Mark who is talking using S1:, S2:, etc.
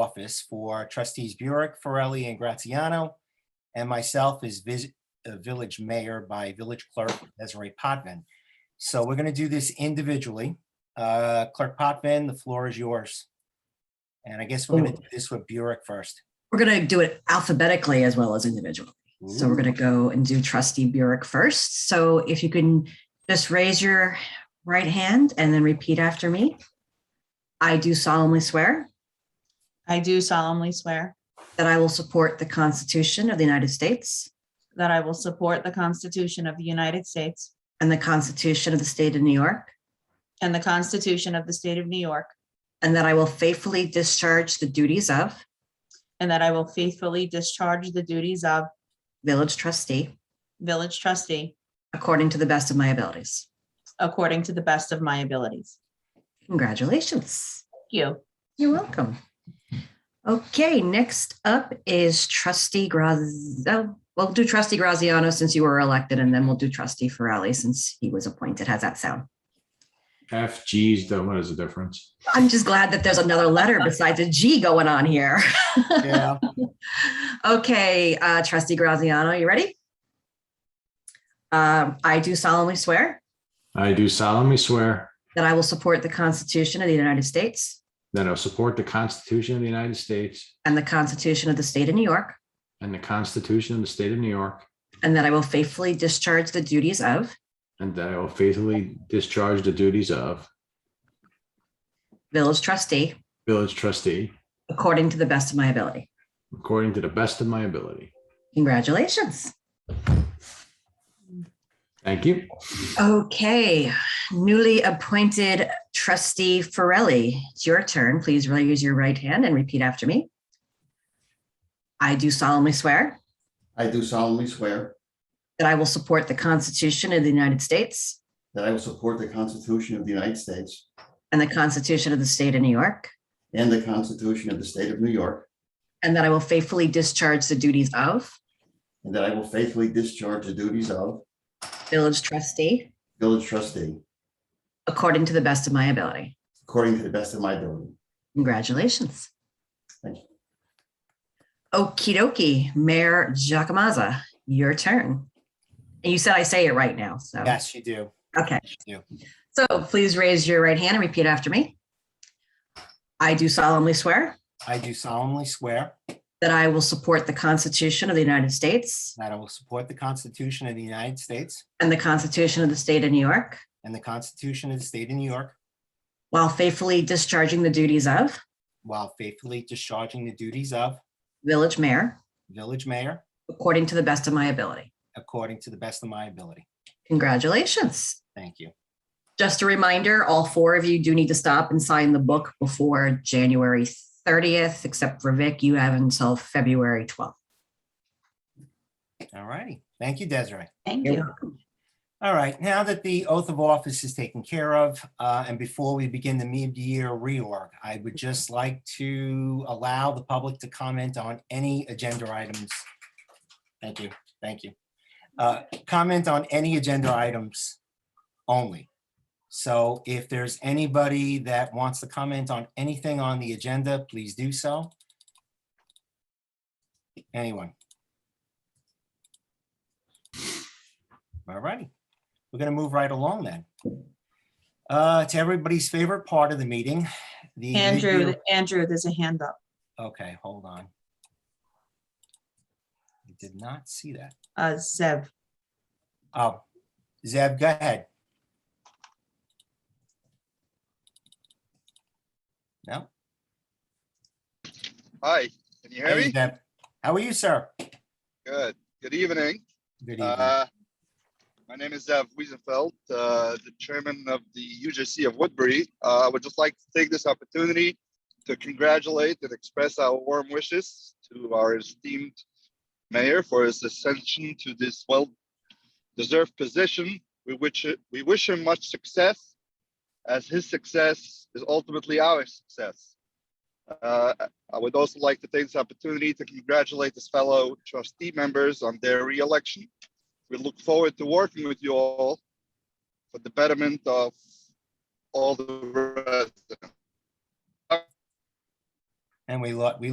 S1: office for trustees Burek, Farelli, and Graziano, and myself is vis- uh, village mayor by village clerk Desiree Potvin. So we're going to do this individually. Uh, Clerk Potvin, the floor is yours. And I guess we're
S2: Oh.
S1: going to do this with Burek first.
S2: We're going to do it alphabetically as well as individually. So we're going to go and do trustee Burek first. So if you can just raise your right hand and then repeat after me. I do solemnly swear
S3: I do solemnly swear
S2: that I will support the Constitution of the United States
S3: that I will support the Constitution of the United States
S2: and the Constitution of the State of New York,
S3: and the Constitution of the State of New York,
S2: and that I will faithfully discharge the duties of
S3: and that I will faithfully discharge the duties of
S2: village trustee
S3: village trustee
S2: according to the best of my abilities.
S3: according to the best of my abilities.
S2: Congratulations.
S3: Thank you.
S2: You're welcome. Okay, next up is trustee Graz, oh, we'll do trustee Graziano since you were elected, and then we'll do trustee Farrelly since he was appointed. How's that sound?
S4: FG's, though, what is the difference?
S2: I'm just glad that there's another letter besides a G going on here.
S1: Yeah,
S2: Okay, uh, trustee Graziano, you ready? Um, I do solemnly swear
S4: I do solemnly swear
S2: that I will support the Constitution of the United States
S4: that I will support the Constitution of the United States
S2: and the Constitution of the State of New York,
S4: and the Constitution of the State of New York,
S2: and that I will faithfully discharge the duties of
S4: and that I will faithfully discharge the duties of
S2: village trustee
S4: village trustee
S2: according to the best of my ability.
S4: according to the best of my ability.
S2: Congratulations.
S4: Thank you.
S2: Okay, newly appointed trustee Farelli, it's your turn. Please raise your right hand and repeat after me. I do solemnly swear
S5: I do solemnly swear
S2: that I will support the Constitution of the United States
S5: that I will support the Constitution of the United States
S2: and the Constitution of the State of New York,
S5: and the Constitution of the State of New York,
S2: and that I will faithfully discharge the duties of
S5: and that I will faithfully discharge the duties of
S2: village trustee
S5: village trustee
S2: according to the best of my ability.
S5: according to the best of my ability.
S2: Congratulations.
S5: Thank you.
S2: Okie dokie, Mayor Giacomazza, your turn. And you said I say it right now, so.
S1: yes, you do.
S2: Okay.
S1: You.
S2: So please raise your right hand and repeat after me. I do solemnly swear
S1: I do solemnly swear
S2: that I will support the Constitution of the United States
S1: that I will support the Constitution of the United States
S2: and the Constitution of the State of New York
S1: and the Constitution of the State of New York
S2: while faithfully discharging the duties of
S1: while faithfully discharging the duties of
S2: village mayor
S1: village mayor
S2: according to the best of my ability.
S1: according to the best of my ability.
S2: Congratulations.
S1: Thank you.
S2: Just a reminder, all four of you do need to stop and sign the book before January 30th, except for Vic, you have until February 12th.
S1: All righty. Thank you, Desiree.
S3: Thank
S2: You're
S3: you.
S1: All right, now that the oath of office is taken care of, uh, and before we begin the mid-year reorg, I would just like to allow the public to comment on any agenda items. Thank you, thank you. Uh, Comment on any agenda items only. So if there's anybody that wants to comment on anything on the agenda, please do so. Anyone? All righty, we're gonna move right along then. Uh, to everybody's favorite part of the meeting, the.
S3: Andrew,
S1: mid-year-
S3: Andrew, there's a hand up.
S1: Okay, hold on. I did not see that.
S3: Uh, Zev,
S1: Oh, Zeb, go ahead. No?
S6: Hi, can you hear
S1: Hey,
S6: me?
S1: Zeb. How are you, sir?
S6: Good. Good evening.
S1: Good evening.
S6: Uh, My name is Zev Wiesenfeld, uh, the chairman of the UJC of Woodbury. Uh, I would just like to take this opportunity to congratulate and express our warm wishes to our esteemed mayor for his ascension to this well-deserved position. We wish, we wish him much success as his success is ultimately our success. Uh, I would also like to take this opportunity to congratulate his fellow trustee members on their reelection. We look forward to working with you all for the betterment of all the residents.
S1: And we look, we